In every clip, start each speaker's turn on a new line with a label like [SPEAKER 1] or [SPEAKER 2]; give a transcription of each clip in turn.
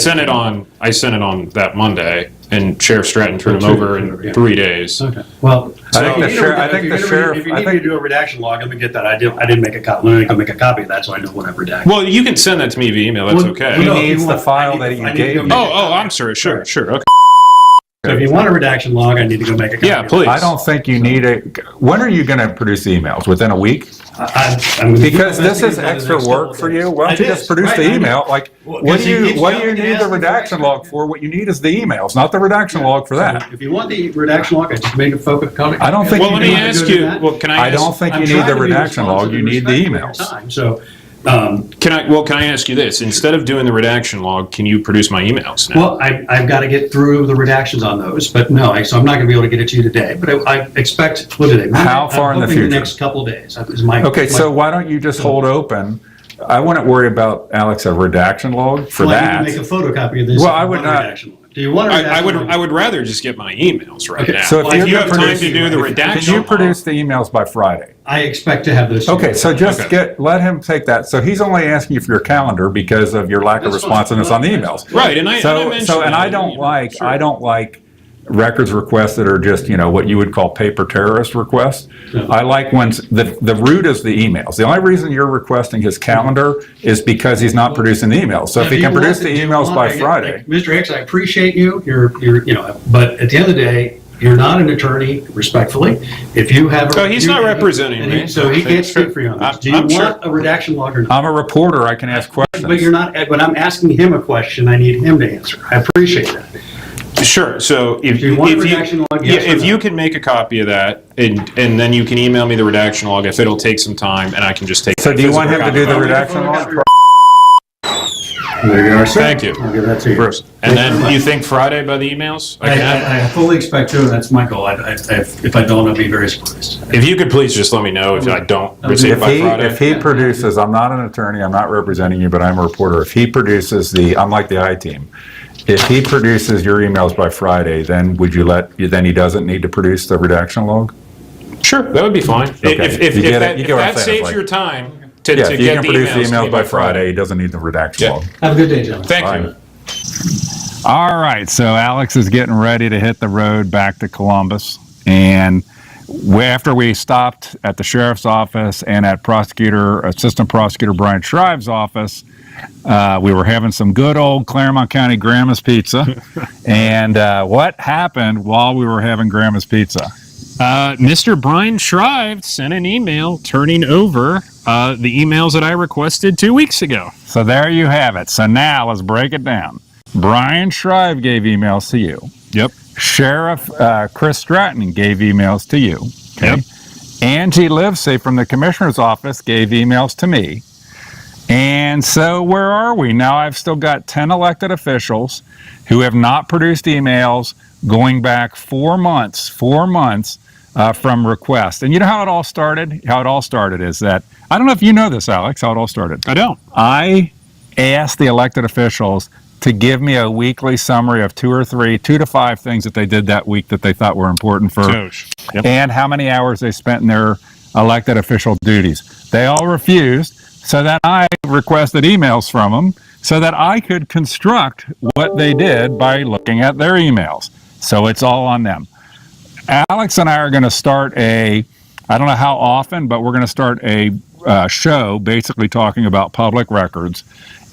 [SPEAKER 1] sent it on, I sent it on that Monday, and Sheriff Stratton turned them over in three days.
[SPEAKER 2] Okay, well.
[SPEAKER 3] I think
[SPEAKER 2] so-
[SPEAKER 3] the
[SPEAKER 2] If you
[SPEAKER 3] sheriff- I
[SPEAKER 2] need to-
[SPEAKER 3] think the
[SPEAKER 2] if you need to-
[SPEAKER 3] sheriff-
[SPEAKER 2] If
[SPEAKER 3] I
[SPEAKER 2] you need me to
[SPEAKER 3] think-
[SPEAKER 2] do a redaction log, let me get that. I didn't, I didn't make a cop, let me go make a copy of that, so I know what I've redacted.
[SPEAKER 1] Well, you can send that to me via email, that's
[SPEAKER 2] Well,
[SPEAKER 1] okay.
[SPEAKER 3] He
[SPEAKER 2] No, if
[SPEAKER 3] needs
[SPEAKER 2] you
[SPEAKER 3] the
[SPEAKER 2] want-
[SPEAKER 3] file
[SPEAKER 2] I
[SPEAKER 3] that
[SPEAKER 2] need
[SPEAKER 3] you
[SPEAKER 2] to- I need to
[SPEAKER 3] gave
[SPEAKER 2] go
[SPEAKER 3] me.
[SPEAKER 2] make-
[SPEAKER 1] Oh, oh, I'm sorry, sure, sure, okay.
[SPEAKER 2] So if you want a redaction log, I need to go make a copy.
[SPEAKER 1] Yeah, please.
[SPEAKER 3] I don't think you need a, when are you going to produce emails? Within a week?
[SPEAKER 2] I- I'm- I'm-
[SPEAKER 3] Because this is
[SPEAKER 2] I'm gonna
[SPEAKER 3] extra
[SPEAKER 2] do
[SPEAKER 3] work for you. Why don't you
[SPEAKER 2] It
[SPEAKER 3] just
[SPEAKER 2] is,
[SPEAKER 3] produce
[SPEAKER 2] right, I
[SPEAKER 3] the
[SPEAKER 2] know.
[SPEAKER 3] email? Like,
[SPEAKER 2] Well,
[SPEAKER 3] what
[SPEAKER 2] 'cause
[SPEAKER 3] do
[SPEAKER 2] he
[SPEAKER 3] you,
[SPEAKER 2] keeps
[SPEAKER 3] what do you
[SPEAKER 2] coming and
[SPEAKER 3] need the
[SPEAKER 2] asking for
[SPEAKER 3] redaction log for? What you need is the emails, not the redaction log for that.
[SPEAKER 2] If you want the redaction log, I just made a focus comment.
[SPEAKER 3] I don't think
[SPEAKER 1] Well, let me
[SPEAKER 3] you
[SPEAKER 1] ask you, well, can I
[SPEAKER 3] I don't
[SPEAKER 1] ask,
[SPEAKER 3] think
[SPEAKER 2] I'm
[SPEAKER 3] you need
[SPEAKER 2] trying to
[SPEAKER 3] the
[SPEAKER 2] be
[SPEAKER 3] redaction log,
[SPEAKER 2] responsive
[SPEAKER 3] you
[SPEAKER 2] and
[SPEAKER 3] need the
[SPEAKER 2] respectful of your
[SPEAKER 3] emails.
[SPEAKER 2] time. So, um,
[SPEAKER 1] can I, well, can I ask you this? Instead of doing the redaction log, can you produce my emails now?
[SPEAKER 2] Well, I, I've got to get through the redactions on those, but no, I, so I'm not going to be able to get it to you today, but I, I expect, what today?
[SPEAKER 3] How far in the future?
[SPEAKER 2] Next couple of days, is my.
[SPEAKER 3] Okay, so
[SPEAKER 2] my
[SPEAKER 3] why don't you just hold open? I wouldn't worry about, Alex, a redaction log for
[SPEAKER 2] plan to Make
[SPEAKER 3] that.
[SPEAKER 2] a photocopy of this.
[SPEAKER 3] Well,
[SPEAKER 2] if you
[SPEAKER 3] I would
[SPEAKER 2] want a
[SPEAKER 3] not-
[SPEAKER 2] redaction log. Do you want a
[SPEAKER 1] I, I
[SPEAKER 2] redaction?
[SPEAKER 1] would,
[SPEAKER 2] log?
[SPEAKER 1] I would rather just get my emails right
[SPEAKER 2] Okay,
[SPEAKER 1] now.
[SPEAKER 3] so if
[SPEAKER 1] If
[SPEAKER 3] you're
[SPEAKER 1] you have
[SPEAKER 3] gonna
[SPEAKER 1] time
[SPEAKER 3] produce-
[SPEAKER 1] to do the
[SPEAKER 2] if- if
[SPEAKER 3] Can
[SPEAKER 1] redaction
[SPEAKER 3] you
[SPEAKER 1] log,
[SPEAKER 3] produce the emails by Friday?
[SPEAKER 2] I expect to have those. to you.
[SPEAKER 3] Okay, so
[SPEAKER 1] Okay.
[SPEAKER 3] just get, let him take that. So he's only asking you for your calendar because of your lack of
[SPEAKER 2] That's fine.
[SPEAKER 3] responsiveness on the emails.
[SPEAKER 1] right, and I, and I
[SPEAKER 3] So,
[SPEAKER 1] mentioned.
[SPEAKER 3] so, and
[SPEAKER 1] that
[SPEAKER 3] I
[SPEAKER 1] in the
[SPEAKER 3] don't
[SPEAKER 1] email.
[SPEAKER 3] like,
[SPEAKER 1] Sure.
[SPEAKER 3] I don't like records requests that are just, you know, what you would call paper terrorist requests.
[SPEAKER 2] Yeah.
[SPEAKER 3] I like ones, the, the root is the emails. The only reason you're requesting his calendar is because he's not producing the emails. So if
[SPEAKER 2] Do
[SPEAKER 3] he
[SPEAKER 2] you
[SPEAKER 3] can produce
[SPEAKER 2] want-
[SPEAKER 3] the
[SPEAKER 2] do you
[SPEAKER 3] emails
[SPEAKER 2] want-
[SPEAKER 3] by
[SPEAKER 2] I get-
[SPEAKER 3] Friday,
[SPEAKER 2] like, Mr. Hicks, I appreciate you, you're, you're, you know, but at the end of the day, you're not an attorney, respectfully. If you have. a-
[SPEAKER 1] So he's not
[SPEAKER 2] you-
[SPEAKER 1] representing
[SPEAKER 2] and he-
[SPEAKER 1] me.
[SPEAKER 2] So he can't speak for you on
[SPEAKER 1] I'm-
[SPEAKER 2] this. Do you
[SPEAKER 1] I'm sure.
[SPEAKER 2] want a redaction log or not?
[SPEAKER 3] I'm a reporter, I can ask questions.
[SPEAKER 2] But you're not, when I'm asking him a question, I need him to answer. I appreciate that.
[SPEAKER 1] Sure, so if
[SPEAKER 2] Do you want
[SPEAKER 1] if
[SPEAKER 2] redaction log,
[SPEAKER 1] Yeah,
[SPEAKER 2] yes or
[SPEAKER 1] if
[SPEAKER 2] no?
[SPEAKER 1] you can make a copy of that, and, and then you can email me the redaction log, if it'll take some time, and I can just take.
[SPEAKER 3] So do you want him to do the
[SPEAKER 1] physical copy.
[SPEAKER 3] redaction log?
[SPEAKER 2] There you are, sir.
[SPEAKER 1] Thank you.
[SPEAKER 2] I'll give that to you.
[SPEAKER 1] And then, you think Friday by the emails? I can have-
[SPEAKER 2] I, I fully expect to, and that's my goal. I, I, if if I don't, I'll be very surprised.
[SPEAKER 1] If you could please just let me know if I don't receive
[SPEAKER 3] If
[SPEAKER 1] by
[SPEAKER 3] he, if
[SPEAKER 1] Friday.
[SPEAKER 3] he produces, I'm not an attorney, I'm not representing you, but I'm a reporter. If he produces the, I'm like the I-team. If he produces your emails by Friday, then would you let, then he doesn't need to produce the redaction log?
[SPEAKER 1] Sure, that would be fine. If,
[SPEAKER 3] Okay.
[SPEAKER 1] if, if
[SPEAKER 3] You get it.
[SPEAKER 1] that,
[SPEAKER 3] You
[SPEAKER 1] if
[SPEAKER 3] get what I'm
[SPEAKER 1] that
[SPEAKER 3] saying,
[SPEAKER 1] saves
[SPEAKER 3] it's like-
[SPEAKER 1] your time to,
[SPEAKER 3] Yeah,
[SPEAKER 1] to
[SPEAKER 3] if you
[SPEAKER 1] get
[SPEAKER 3] can
[SPEAKER 1] the
[SPEAKER 3] produce the
[SPEAKER 1] emails
[SPEAKER 3] emails
[SPEAKER 1] by
[SPEAKER 3] by
[SPEAKER 1] Friday.
[SPEAKER 3] Friday, he doesn't need the redaction
[SPEAKER 1] Yeah.
[SPEAKER 3] log.
[SPEAKER 2] Have a good day, gentlemen.
[SPEAKER 1] Thank you.
[SPEAKER 3] Fine. All right, so Alex is getting ready to hit the road back to Columbus. And we, after we stopped at the sheriff's office and at prosecutor, assistant prosecutor Brian Shrive's office, uh, we were having some good old Claremont County Grandma's Pizza. and uh, what happened while we were having Grandma's Pizza?
[SPEAKER 1] Uh, Mr. Brian Shrive sent an email turning over uh, the emails that I requested two weeks ago.
[SPEAKER 3] So there you have it. So now let's break it down. Brian Shrive gave emails to you.
[SPEAKER 1] Yep.
[SPEAKER 3] Sheriff uh, Chris Stratton gave emails to you.
[SPEAKER 1] Yep.
[SPEAKER 3] Angie Livesey from the commissioner's office gave emails to me. And so where are we? Now I've still got 10 elected officials who have not produced emails going back four months, four months uh, from request. And you know how it all started? How it all started is that, I don't know if you know this, Alex, how it all started.
[SPEAKER 1] I don't.
[SPEAKER 3] I asked the elected officials to give me a weekly summary of two or three, two to five things that they did that week that they thought were important for
[SPEAKER 1] Doge. Yep.
[SPEAKER 3] and how many hours they spent in their elected official duties. They all refused, so that I requested emails from them so that I could construct what they did by looking at their emails. So it's all on them. Alex and I are going to start a, I don't know how often, but we're going to start a uh, show basically talking about public records.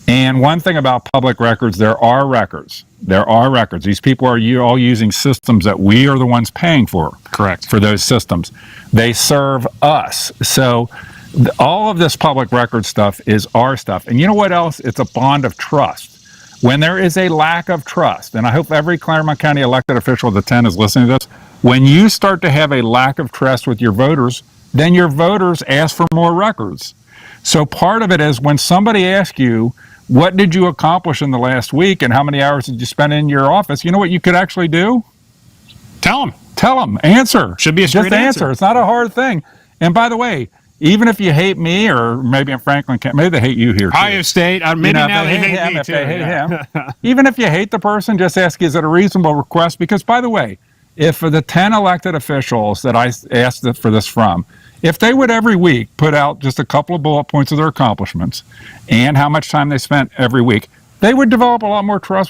[SPEAKER 3] And one thing about public records, there are records. There are records. These people are you all using systems that we are the ones paying for
[SPEAKER 1] Correct.
[SPEAKER 3] for those systems. They serve us. So th- all of this public record stuff is our stuff. And you know what else? It's a bond of trust. When there is a lack of trust, and I hope every Claremont County elected official of the 10 is listening to this, when you start to have a lack of trust with your voters, then your voters ask for more records. So part of it is when somebody asks you, what did you accomplish in the last week and how many hours did you spend in your office? You know what you could actually do?
[SPEAKER 1] Tell him.
[SPEAKER 3] Tell them, answer.
[SPEAKER 1] Should be a
[SPEAKER 3] Just
[SPEAKER 1] straight answer.
[SPEAKER 3] It's not a hard thing. And by the way, even if you hate me, or maybe in Franklin County, maybe they hate you here. Too.
[SPEAKER 1] Ohio State. Uh, maybe
[SPEAKER 3] You know, if
[SPEAKER 1] now
[SPEAKER 3] they
[SPEAKER 1] they
[SPEAKER 3] hate
[SPEAKER 1] hate
[SPEAKER 3] him,
[SPEAKER 1] me
[SPEAKER 3] if
[SPEAKER 1] too.
[SPEAKER 3] they hate
[SPEAKER 1] yeah.
[SPEAKER 3] Even if you hate the person, just ask, is it a reasonable request? Because by the way, if for the 10 elected officials that I s- asked th- for this from, if they would every week put out just a couple of bullet points of their accomplishments and how much time they spent every week, they would develop a lot more trust